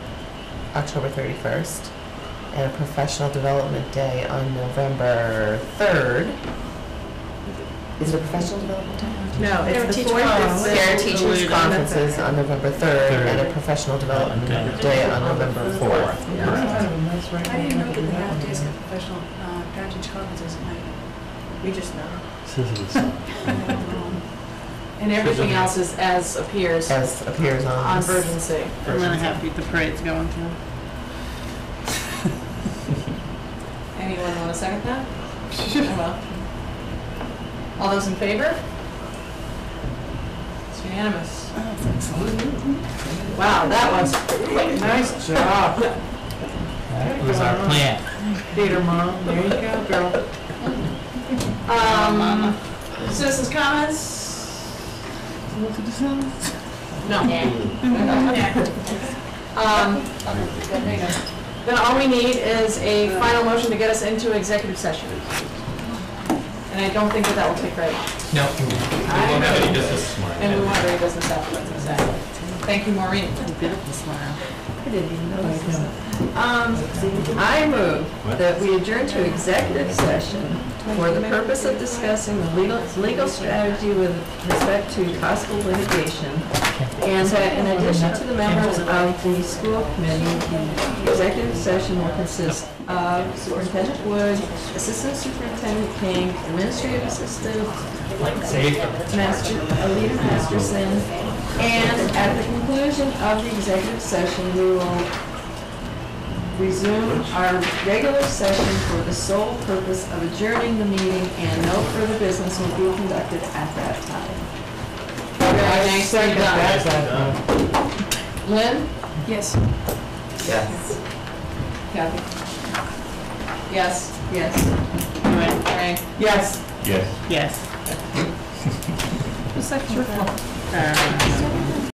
October 31st, and a professional development day on November 3rd. Is it a professional development day? No, There it's were the teacher fourth. conferences. and There are the teachers' third. conferences on November 3rd, and a professional development Okay. day on November 4th. Correct. I didn't know that the half days got professional uh, parent teacher conferences at night. We just know. Um, And everything else is as appears As appears on on this. Virgin City. And then I have the parade's going through. Anyone want to second that? I will. All those in favor? It's unanimous. Oh, Wow, that was quick. Nice job. That was our plan. Theater mom, there you go, girl. Um, citizens comments? Look at the signs. No. Um, Then all we need is a final motion to get us into executive session. And I don't think that that will take very long. No, we won't have any business this morning. And we want to read business afterwards, exactly. Thank you, Maureen. A beautiful smile. Um, I move that we adjourn to executive session for the purpose of discussing the legal, legal strategy with respect to possible litigation. And that in addition to the members of the school committee, the executive session will consist of Superintendent Wood, Assistant Superintendent King, Administrative Assistant Safe. Master, Alita Masterson, and at the conclusion of the executive session, we will resume our regular session for the sole purpose of adjourning the meeting, and no further business will be conducted at that time. Thanks, you're done. Lynn? Yes. Yes. Kathy? Yes. Yes. Anyway, Mary? Yes. Yes. yes. Who's that? Uh,